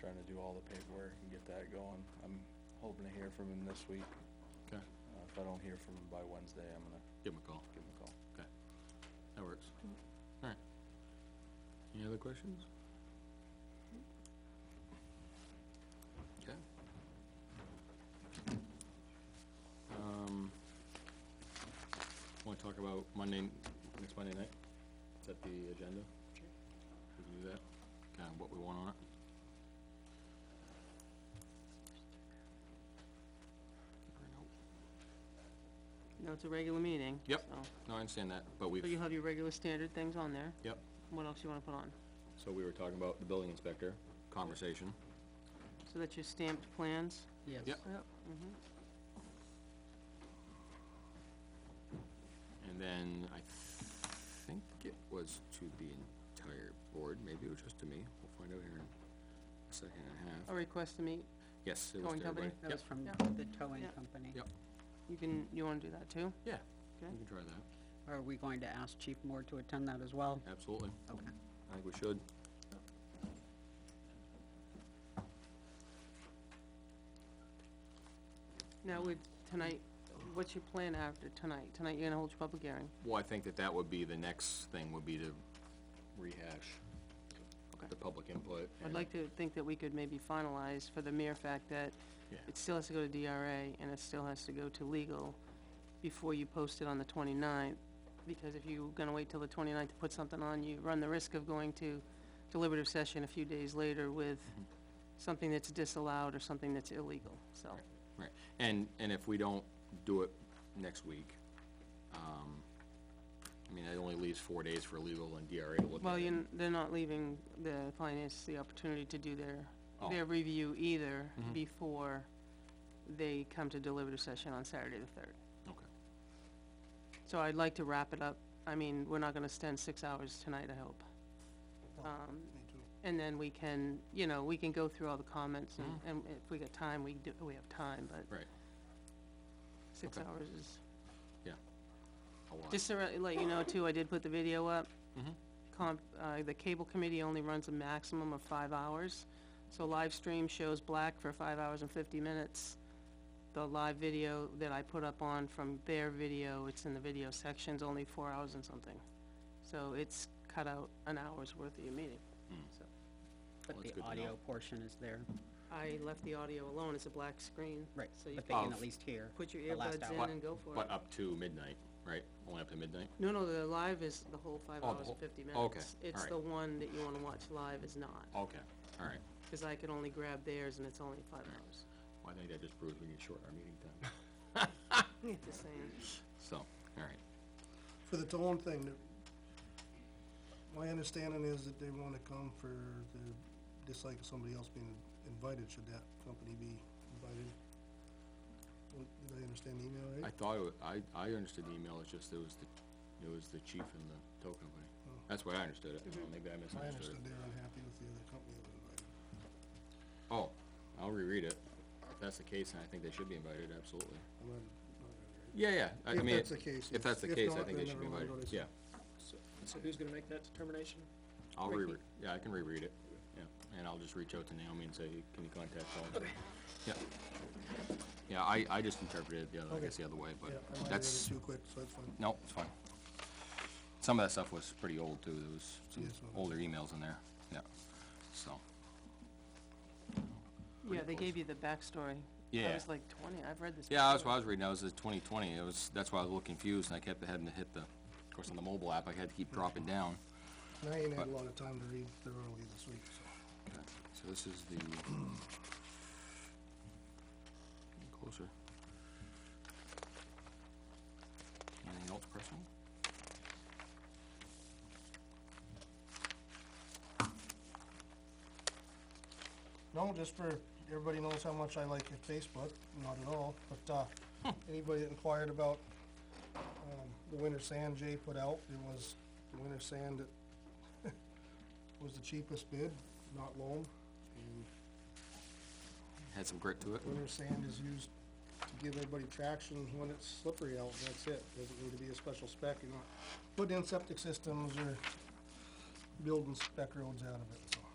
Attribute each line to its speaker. Speaker 1: trying to do all the paperwork and get that going. I'm hoping to hear from him this week.
Speaker 2: Okay,
Speaker 1: Uh, if I don't hear from him by Wednesday, I'm gonna
Speaker 2: give him a call.
Speaker 1: give him a call.
Speaker 2: Okay, that works. All right. Any other questions? Okay. Um, wanna talk about Monday, next Monday night? Is that the agenda? Sure. We can do that, kinda what we want on it. Or no.
Speaker 3: No, it's a regular meeting.
Speaker 2: Yep.
Speaker 3: so-
Speaker 2: No, I understand that, but
Speaker 3: So you
Speaker 2: we've,
Speaker 3: have your regular standard things on there.
Speaker 2: yep,
Speaker 3: What else you wanna put on?
Speaker 2: so we were talking about the building inspector, conversation.
Speaker 3: So that's your stamped plans?
Speaker 4: Yes.
Speaker 2: Yep.
Speaker 3: Yep.
Speaker 2: And then I think it was to the entire board, maybe it was just to me, we'll find out here in a second and a
Speaker 3: A
Speaker 2: half.
Speaker 3: request to meet,
Speaker 2: Yes, it was
Speaker 3: Towing
Speaker 2: to
Speaker 3: company?
Speaker 2: everybody.
Speaker 4: That
Speaker 2: Yep,
Speaker 4: was from
Speaker 3: Yeah.
Speaker 4: the towing
Speaker 3: Yeah.
Speaker 4: company.
Speaker 2: yep,
Speaker 3: you can, you wanna do that too?
Speaker 2: yeah,
Speaker 3: Okay.
Speaker 2: we can try that,
Speaker 4: Are we going to ask Chief Moore to attend that as well?
Speaker 2: absolutely,
Speaker 4: Okay.
Speaker 2: I think we should.
Speaker 3: Now with tonight, what's your plan after tonight? Tonight you're gonna hold your public hearing?
Speaker 2: Well, I think that that would be, the next thing would be to rehash
Speaker 3: Okay.
Speaker 2: the public input.
Speaker 3: I'd
Speaker 2: and-
Speaker 3: like to think that we could maybe finalize for the mere fact that
Speaker 2: Yeah.
Speaker 3: it still has to go to DRA and it still has to go to legal before you post it on the 29th. Because if you're gonna wait till the 29th to put something on, you run the risk of going to deliberative session a few days later with
Speaker 2: Mm-hmm.
Speaker 3: something that's disallowed or something that's illegal, so.
Speaker 2: Right, and, and if we don't do it next week, um, I mean, it only leaves four days for legal and DRA to look at it.
Speaker 3: Well, you, they're not leaving the finance the opportunity to do their,
Speaker 2: Oh. Mm-hmm.
Speaker 3: their review either before they come to deliberative session on Saturday the third.
Speaker 2: Okay,
Speaker 3: So I'd like to wrap it up. I mean, we're not gonna spend six hours tonight, I hope. Um, and then we can, you know, we can go through all the comments and, and if we got time, we do, we have time, but
Speaker 2: Mm-hmm. right,
Speaker 3: six
Speaker 2: okay.
Speaker 3: hours is.
Speaker 2: yeah. A lot. Mm-hmm.
Speaker 3: Just to re- let you know too, I did put the video up. Comp, uh, the cable committee only runs a maximum of five hours. So live stream shows black for five hours and fifty minutes. The live video that I put up on from their video, it's in the video sections, only four hours and something. So it's cut out an hour's worth of your meeting,
Speaker 2: Hmm.
Speaker 3: so.
Speaker 4: But
Speaker 2: Well, that's
Speaker 4: the
Speaker 2: good to know.
Speaker 4: audio portion is there,
Speaker 3: I left the audio alone, it's a black screen.
Speaker 4: right,
Speaker 3: So you
Speaker 4: but they can
Speaker 2: Of-
Speaker 4: at least hear.
Speaker 3: put your
Speaker 4: the last
Speaker 3: earbuds
Speaker 4: hour.
Speaker 3: in and go for it.
Speaker 2: But uh, up to midnight, right, only up to midnight?
Speaker 3: No, no, the live is the whole five
Speaker 2: Oh, the
Speaker 3: hours
Speaker 2: whole-
Speaker 3: and fifty minutes.
Speaker 2: okay,
Speaker 3: It's
Speaker 2: alright.
Speaker 3: the one that you wanna watch live is not.
Speaker 2: Okay, all right,
Speaker 3: Because I could only grab theirs and it's only five hours.
Speaker 2: well, I think that just proves we need to shorten our meeting time,
Speaker 3: Just saying.
Speaker 2: so, all right,
Speaker 5: For the tone thing, the- my understanding is that they wanna come for the, just like somebody else being invited, should that company be invited? Well, Did I understand the email
Speaker 2: I
Speaker 5: right?
Speaker 2: thought, it wa- I, I understood the email, it's just it was the, it was the chief and the tow company. That's what I understood it, Well, maybe I
Speaker 5: I
Speaker 2: misunderstood
Speaker 5: understood
Speaker 2: it.
Speaker 5: they were unhappy with the other company that was invited.
Speaker 2: Oh, I'll reread it, if that's the case, then I think they should be invited, absolutely.
Speaker 5: I'm not- not really-
Speaker 2: Yeah, yeah, I I
Speaker 5: If
Speaker 2: mean,
Speaker 5: that's the case,
Speaker 2: if that's the
Speaker 5: if
Speaker 2: case, I
Speaker 5: not,
Speaker 2: think they should
Speaker 5: then
Speaker 2: be
Speaker 5: everyone
Speaker 2: invited,
Speaker 5: goes.
Speaker 2: yeah,
Speaker 6: So- So who's gonna make that determination?
Speaker 2: I'll
Speaker 3: Ricky.
Speaker 2: reread, yeah, I can reread it, yeah, and I'll just reach out to Naomi and say, can you contact Paul? Okay. Yeah, yeah, I, I just interpreted it the other, I
Speaker 5: Okay.
Speaker 2: guess the other way, but
Speaker 5: Yeah, I might have read it
Speaker 2: that's,
Speaker 5: too quick, so that's fine.
Speaker 2: no, it's fine. Some of that stuff was pretty old too, there was some
Speaker 5: Yes, well, that's-
Speaker 2: older emails in there, yeah, so,
Speaker 3: Yeah, they gave you the backstory. I
Speaker 2: Yeah.
Speaker 3: was like twenty, I've read this.
Speaker 2: yeah, that's
Speaker 3: before.
Speaker 2: what I was reading, I was at twenty twenty, it was, that's why I was a little confused, and I kept having to hit the, of course, on the mobile app, I had to keep dropping down.
Speaker 5: And I ain't had a lot of time to read thoroughly this week, so.
Speaker 2: Okay, So this is the, closer. Anything else personal?
Speaker 5: No, just for, everybody knows how much I like your Facebook, not at all, but, uh, anybody that inquired about, um, the winter sand Jay put out, it was the winter sand that was the cheapest bid, not loan, and
Speaker 2: Had some grit to it?
Speaker 5: winter sand is used to give everybody traction when it's slippery out, and that's it, doesn't need to be a special spec, you're not putting in septic systems or building spec roads out of it, so.